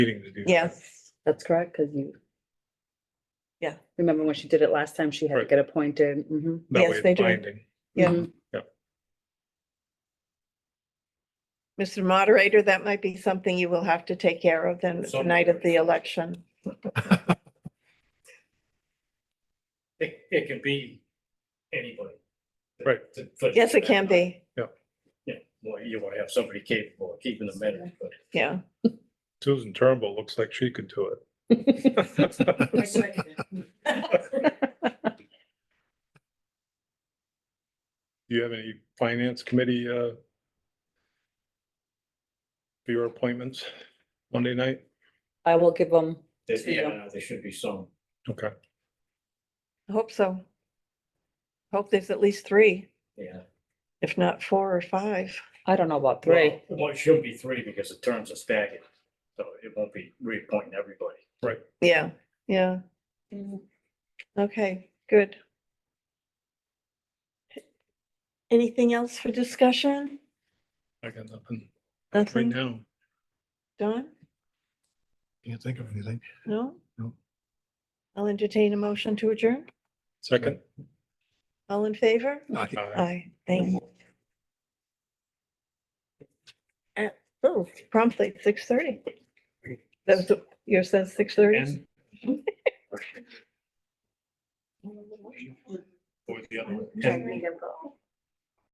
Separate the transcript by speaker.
Speaker 1: meeting to do. that.
Speaker 2: Yes,
Speaker 3: That's correct, because you.
Speaker 2: Yeah.
Speaker 3: Remember when she did it last time, she had to
Speaker 1: Right.
Speaker 3: get appointed. Mhm,
Speaker 1: That
Speaker 2: Yes,
Speaker 1: way it's
Speaker 2: they do.
Speaker 1: binding.
Speaker 2: yeah.
Speaker 3: mhm.
Speaker 2: Mr. Moderator, that might be something you will have to take care of then the
Speaker 1: Some-
Speaker 2: night of the election.
Speaker 4: It, it can be anybody.
Speaker 1: Right.
Speaker 4: To- to-
Speaker 2: Yes, it can be.
Speaker 4: Yeah, well, you want to have somebody capable of keeping the minutes, but
Speaker 2: Yeah.
Speaker 1: Susan Turnbull looks like she could do
Speaker 3: mm-hmm.
Speaker 5: I
Speaker 1: it.
Speaker 5: second it.
Speaker 1: Do you have any finance committee, uh, for your appointments Monday night?
Speaker 3: I will give them,
Speaker 4: there's,
Speaker 3: Yeah.
Speaker 4: yeah, there should be some.
Speaker 1: Okay.
Speaker 2: I Hope so. Hope there's at least three,
Speaker 4: Yeah.
Speaker 2: if not four or five.
Speaker 3: I don't know about three.
Speaker 4: Well, it should be three because the terms are staggered, so it won't be reappointing everybody.
Speaker 2: Yeah, yeah. Okay, good. Anything else for discussion?
Speaker 1: I got nothing right
Speaker 2: Nothing,
Speaker 1: now.
Speaker 2: Don?
Speaker 6: Can't think of anything.
Speaker 2: No?
Speaker 6: No.
Speaker 2: I'll entertain a motion to adjourn.
Speaker 1: Second?
Speaker 2: All in favor?
Speaker 6: Aye.
Speaker 1: Aye.
Speaker 2: Aye, thank you. At- oh, promptly six thirty. That was, yours says six thirty?
Speaker 4: And- Or the other one. And